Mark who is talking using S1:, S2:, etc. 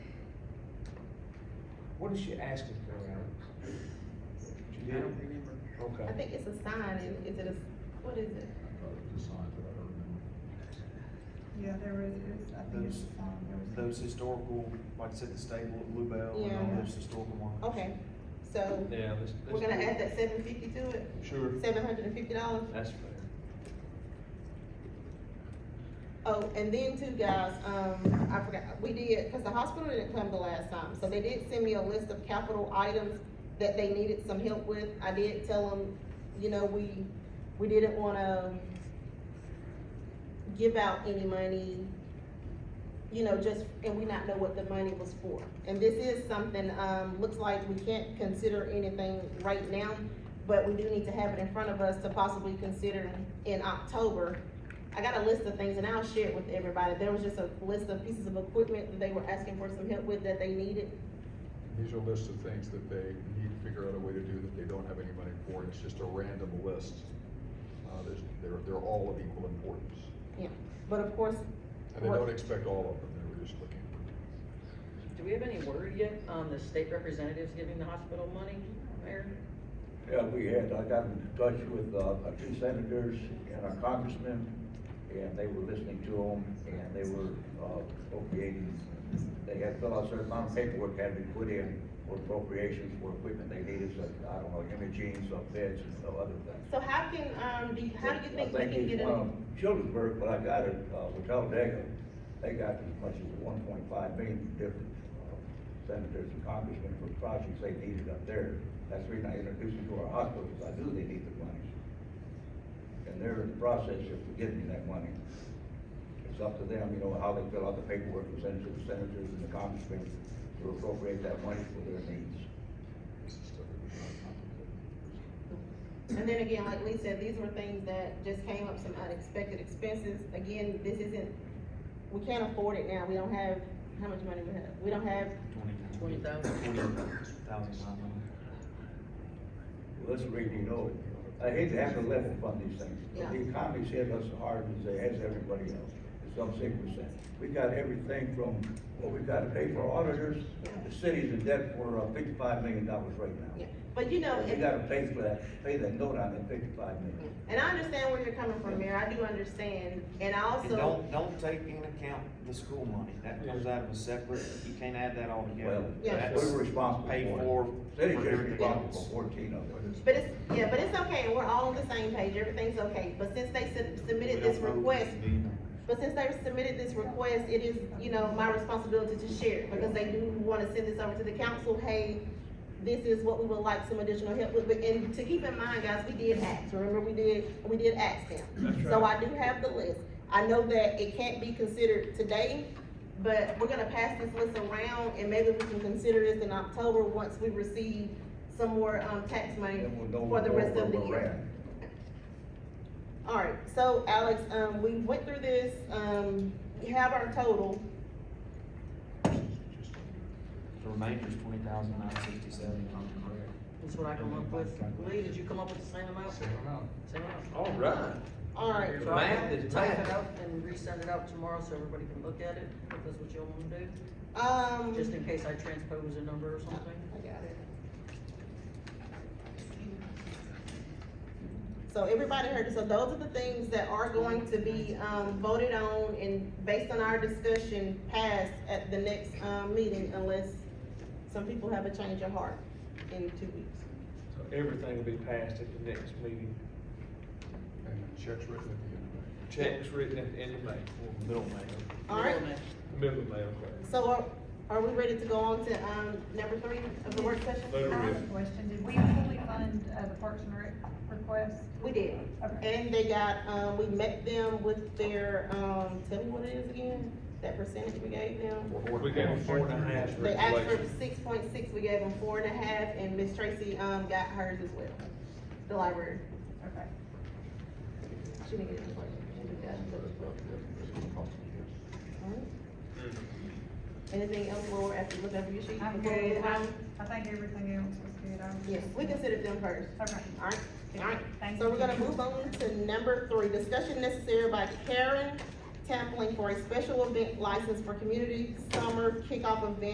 S1: What is she asking for, Alex? She
S2: I
S1: did,
S2: don't remember.
S3: I
S1: okay.
S3: think it's a sign, and is it a, what is it?
S4: Yeah, there is, it's, I think it's,
S5: Those-
S4: um, there was.
S5: Those historical, like I said, the stable at Bluebell and all
S3: Yeah.
S5: those historical ones.
S3: Okay, so
S2: Yeah, let's,
S3: we're
S2: let's.
S3: gonna add that seven fifty to it,
S5: Sure.
S3: seven hundred and fifty dollars?
S2: That's fair.
S3: Oh, and then too, guys, um, I forgot, we did, cause the hospital didn't come the last time, so they did send me a list of capital items that they needed some help with, I did tell them, you know, we, we didn't wanna give out any money, you know, just, and we not know what the money was for. And this is something, um, looks like we can't consider anything right now, but we do need to have it in front of us to possibly consider in October. I got a list of things and I'll share it with everybody. There was just a list of pieces of equipment that they were asking for some help with that they needed.
S6: These are lists of things that they need to figure out a way to do that they don't have any money for, and it's just a random list. Uh, there's, they're, they're all of equal importance,
S3: Yeah, but of course,
S6: and they don't
S3: Right.
S6: expect all of them, they were just looking for.
S7: Do we have any word yet on the state representatives giving the hospital money, Mayor?
S8: Yeah, we had, I got in touch with, uh, our two senators and our congressman, and they were listening to them, and they were, uh, appropriating. They had filled out certain amount of paperwork had been put in for appropriations for equipment they needed, such, I don't know, imaging, some beds and some other things.
S3: so how can, um, do, you- how do you think we
S8: I
S3: can
S8: it's
S3: get it?
S8: one of Childersburg, but I got it, uh, with Talladega, they got as much as one point five million from different uh, senators and congressmen for projects they needed up there. That's the reason I introduced them to our hospitals, I knew they needed the money. And they're in the process of getting that money. It's up to them, you know, how they fill out the paperwork and send it to the senators and the congressmen to appropriate that money for their needs.
S3: And then again, like Lee said, these were things that just came up, some unexpected expenses. Again, this isn't, we can't afford it now. We don't have, how much money we have? We don't have,
S7: Twenty thousand.
S8: Well, let's read, you know, I hate to have to let them fund these things, but the
S3: Yeah.
S8: economy's hit us hard as it has everybody else, to some sick percent. We got everything from, well, we've got to pay for auditors, the city's in debt for uh, fifty-five million dollars right
S3: yeah,
S8: now.
S3: but you know.
S8: And We
S3: if-
S8: got to pay for that, pay that note on that fifty-five million.
S3: And I understand where you're coming from, Mayor, I do understand, and I
S5: And
S3: also,
S5: don't, don't take into account the school money, that comes out of a separate, you can't add that all together.
S8: Well,
S3: Yeah.
S5: That's
S8: we're responsible for
S5: Paid
S8: it.
S5: for.
S8: City's
S5: for
S8: just
S5: everything
S8: responsible
S5: else.
S8: for fourteen of it.
S3: but it's, yeah, but it's okay, we're all on the same page, everything's okay, but since they sub-
S5: We
S3: submitted
S5: don't
S3: this
S5: know.
S3: request, but since they submitted this request, it is, you know, my responsibility to share, it because they do wanna send this over to the council, hey, this is what we would like some additional help with, but, and to keep in mind, guys, we did ask, remember, we did, we did ask them. So I do have the list, I know that it can't be considered today, But we're gonna pass this list around and maybe we can consider this in October once we receive some more, um, tax money
S8: Then we'll know
S3: for the
S8: more
S3: rest of
S8: where
S3: the
S8: we're
S3: year.
S8: at.
S3: Alright, so Alex, um, we went through this, um, we have our total,
S5: The remainder's twenty thousand nine sixty-seven.
S7: That's what I come up with. Lee, did you come up with the same amount?
S1: Same amount.
S7: Same amount.
S2: All right.
S3: alright.
S7: So I
S2: Math
S7: can
S2: is
S7: type
S2: math.
S7: it up and resend it out tomorrow so everybody can look at it, if that's what y'all wanna do,
S3: Um,
S7: just in case I transpose a number or something.
S3: I got it. So everybody heard, it. so those are the things that are going to be, um, voted on and based on our discussion passed at the next, um, meeting unless some people have a change of heart in two weeks.
S1: So everything will be passed at the next meeting,
S6: And checks written at the end of it.
S1: checks written at the end of May,
S5: Middle man.
S3: Alright,
S1: middle of May, okay.
S3: so are, are we ready to go on to, um, number three of the work session?
S1: Vote.
S4: I have a question, did we fully fund, uh, the Parks and Rec request?
S3: We did,
S4: Okay.
S3: and they got, um, we met them with their, um, tell me what it is again, that percentage we gave them.
S1: We gave them four and a half for
S3: They asked for
S1: inflation.
S3: six point six, we gave them four and a half, and Miss Tracy, um, got hers as well, the library.
S4: Okay.
S3: She didn't get it. She got it. Anything else, Laura, after looking over your sheet?
S4: I'm
S3: before we
S4: good,
S3: move
S4: I,
S3: on?
S4: I think everything else was good, I was.
S3: Yes, we considered them first.
S4: Okay.
S3: Alright, alright,
S4: Thank
S3: so we're
S4: you.
S3: gonna move on to number three, discussion necessary by Karen Tampling for a special event license for community summer kickoff event